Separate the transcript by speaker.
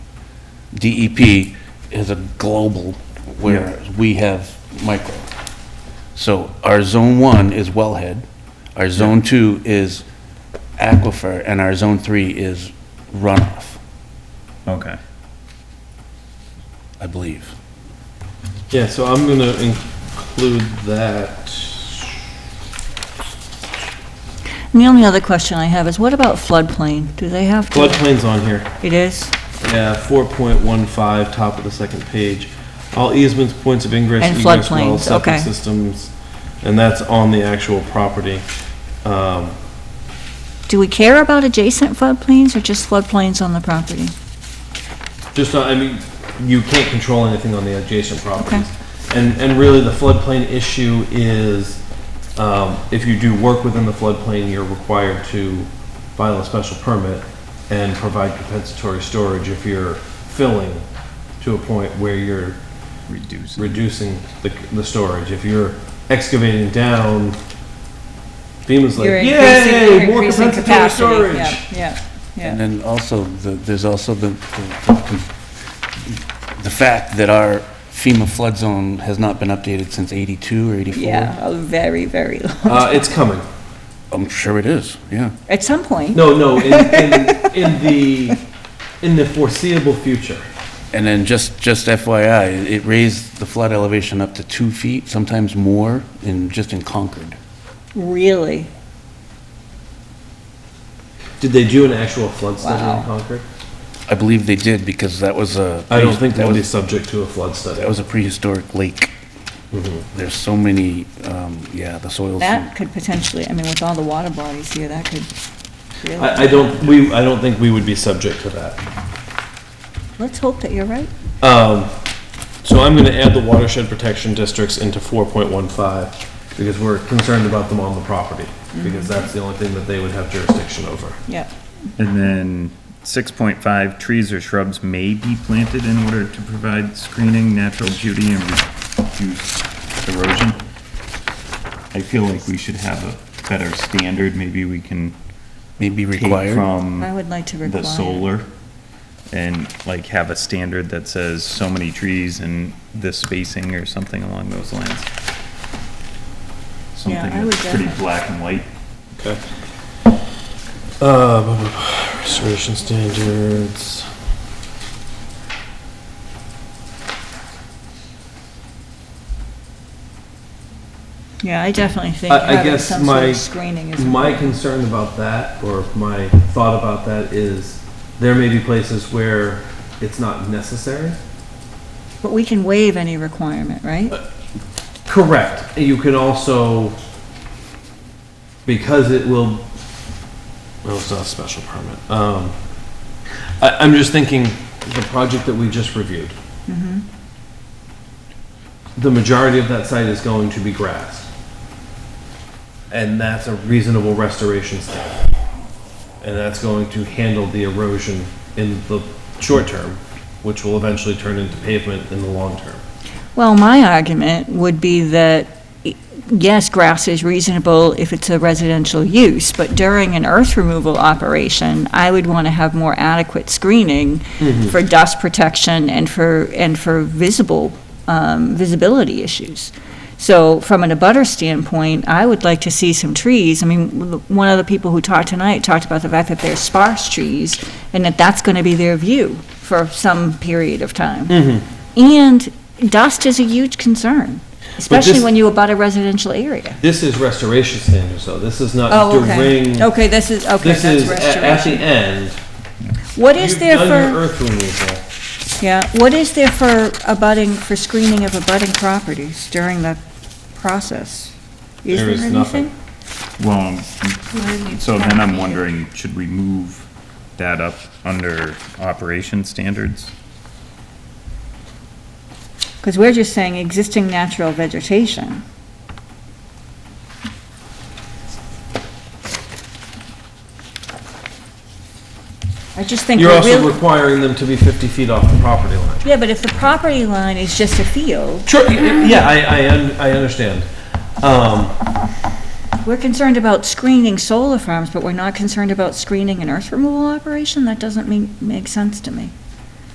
Speaker 1: DEP E is a global, whereas we have micro. So our zone one is wellhead, our zone two is aquifer, and our zone three is runoff,
Speaker 2: Okay.
Speaker 1: I believe.
Speaker 3: Yeah, so I'm gonna include that.
Speaker 4: And the only other question I have is what about floodplain? Do they have to?
Speaker 3: Floodplain's on here.
Speaker 4: It is?
Speaker 3: Yeah, four point one five, top of the second page. All easements, points of ingress,
Speaker 4: And
Speaker 3: egress
Speaker 4: floodplains,
Speaker 3: wells, septic
Speaker 4: okay.
Speaker 3: systems, and that's on the actual property. Um,
Speaker 4: Do we care about adjacent floodplains or just floodplains on the property?
Speaker 3: Just, not- I mean, you can't control anything on the adjacent properties.
Speaker 4: Okay.
Speaker 3: And, and really, the floodplain issue is, um, if you do work within the floodplain, you're required to file a special permit and provide compensatory storage if you're filling to a point where you're
Speaker 2: Reduce.
Speaker 3: reducing the, the storage. If you're excavating down, FEMA's like,
Speaker 5: You're increasing-
Speaker 3: yay,
Speaker 5: you're
Speaker 3: more
Speaker 5: increasing
Speaker 3: compensatory
Speaker 5: capacity." Yeah,
Speaker 3: storage.
Speaker 5: Yeah,
Speaker 1: And
Speaker 5: yeah.
Speaker 1: then also, the- there's also the, the- the fact that our FEMA flood zone has not been updated since 82 or 84.
Speaker 5: Yeah, a very, very low.
Speaker 3: Uh, it's coming.
Speaker 1: I'm sure it is, yeah.
Speaker 4: At some point,
Speaker 3: No, no, in, in, in the, in the foreseeable future.
Speaker 1: And then just, just FYI, it- it raised the flood elevation up to two feet, sometimes more, in, just in Concord.
Speaker 4: really?
Speaker 3: Did they do an actual flood study
Speaker 5: Wow.
Speaker 3: in Concord?
Speaker 1: I believe they did, because that was a.
Speaker 3: I don't think
Speaker 1: that
Speaker 3: that would be
Speaker 1: was
Speaker 3: subject to a flood
Speaker 1: That
Speaker 3: study. Mm-hmm.
Speaker 1: was a prehistoric lake. There's so many, um, yeah, the soils.
Speaker 5: That could potentially, I mean, with all the water bodies here, that could really.
Speaker 3: I, I don't, we, I don't think we would be subject to that.
Speaker 4: Let's hope that you're right.
Speaker 3: Um, so I'm gonna add the watershed protection districts into four point one five, because we're concerned about them on the property, because that's the only thing that they would have jurisdiction over.
Speaker 5: Yeah,
Speaker 2: And then six point five, trees or shrubs may be planted in order to provide screening, natural beauty, and reduce erosion. I feel like we should have a better standard, maybe we can
Speaker 1: Maybe
Speaker 2: take
Speaker 1: required.
Speaker 3: Mm.
Speaker 2: from
Speaker 4: I would like to
Speaker 2: the
Speaker 4: require.
Speaker 2: solar and like have a standard that says so many trees and this spacing or something along those lines.
Speaker 4: Yeah, I
Speaker 2: Something
Speaker 4: would
Speaker 2: that's pretty
Speaker 4: definitely-
Speaker 2: black and white.
Speaker 3: Okay. Uh, restoration standards.
Speaker 4: Yeah, I definitely think
Speaker 3: I- I
Speaker 4: having
Speaker 3: guess
Speaker 4: some sort
Speaker 3: my-
Speaker 4: of screening is
Speaker 3: My
Speaker 4: important.
Speaker 3: concern about that, or my thought about that is, there may be places where it's not necessary.
Speaker 4: But we can waive any requirement, right?
Speaker 3: Correct. You can also, because it will, well, it's not a special permit. Um, I, I'm just thinking, the project that we just reviewed. The majority of that site is going to be grass. And that's a reasonable restoration standard. And that's going to handle the erosion in the short term, which will eventually turn into pavement in the long term.
Speaker 4: Well, my argument would be that, y- yes, grass is reasonable if it's a residential use, but during an earth removal operation, I would want to have more adequate screening for dust protection and for, and for visible, um, visibility issues. So from an abutter standpoint, I would like to see some trees. I mean, l- one of the people who talked tonight talked about the fact that there's sparse trees and that that's going to be their view for some period of time.
Speaker 3: Mm-hmm.
Speaker 4: And dust is a huge concern, especially
Speaker 3: this-
Speaker 4: when you abut a residential area.
Speaker 3: This is restoration standards, though. This is not
Speaker 4: Oh, okay.
Speaker 3: during,
Speaker 4: Okay, this is, okay,
Speaker 3: Uh, this
Speaker 4: that's
Speaker 3: is a- at the
Speaker 4: restoration.
Speaker 3: end.
Speaker 4: What is there
Speaker 3: You've done your
Speaker 4: for,
Speaker 3: earth removal.
Speaker 4: yeah, what is there for abutting, for screening of abutting properties during the process? Is
Speaker 3: There
Speaker 4: there
Speaker 3: is nothing.
Speaker 4: anything?
Speaker 2: Well, Um, so then I'm wondering, should we move that up under operation standards?
Speaker 4: Because we're just saying existing natural vegetation. I just think
Speaker 3: You're
Speaker 4: we're
Speaker 3: also
Speaker 4: really,
Speaker 3: requiring them to be 50 feet off the property line.
Speaker 4: yeah, but if the property line is just a field,
Speaker 3: Sure, y- y- yeah, I, I, un- I understand. Um,
Speaker 4: We're concerned about screening solar farms, but we're not concerned about screening an earth removal operation? That doesn't make, make sense to me.